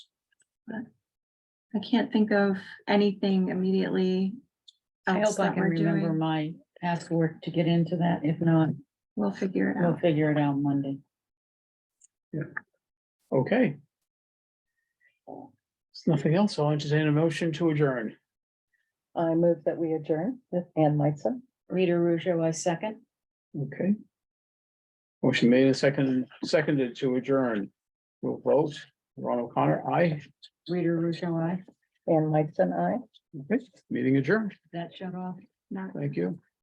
but I can't think of anything immediately I else hope I that can we're remember doing. my password to get into that. If not, We'll figure it we'll out. figure it out Monday. Okay. There's Nothing else. I'll entertain a motion to adjourn. I move that we adjourn with Ann Meitzen. Rita Russo, I second. Okay. Motion made and second, seconded to adjourn. We'll vote. Ron O'Connor, aye. Rita Russo, I. Ann Meitzen, I. Okay, Meeting adjourned. That shut off. Not- Thank you.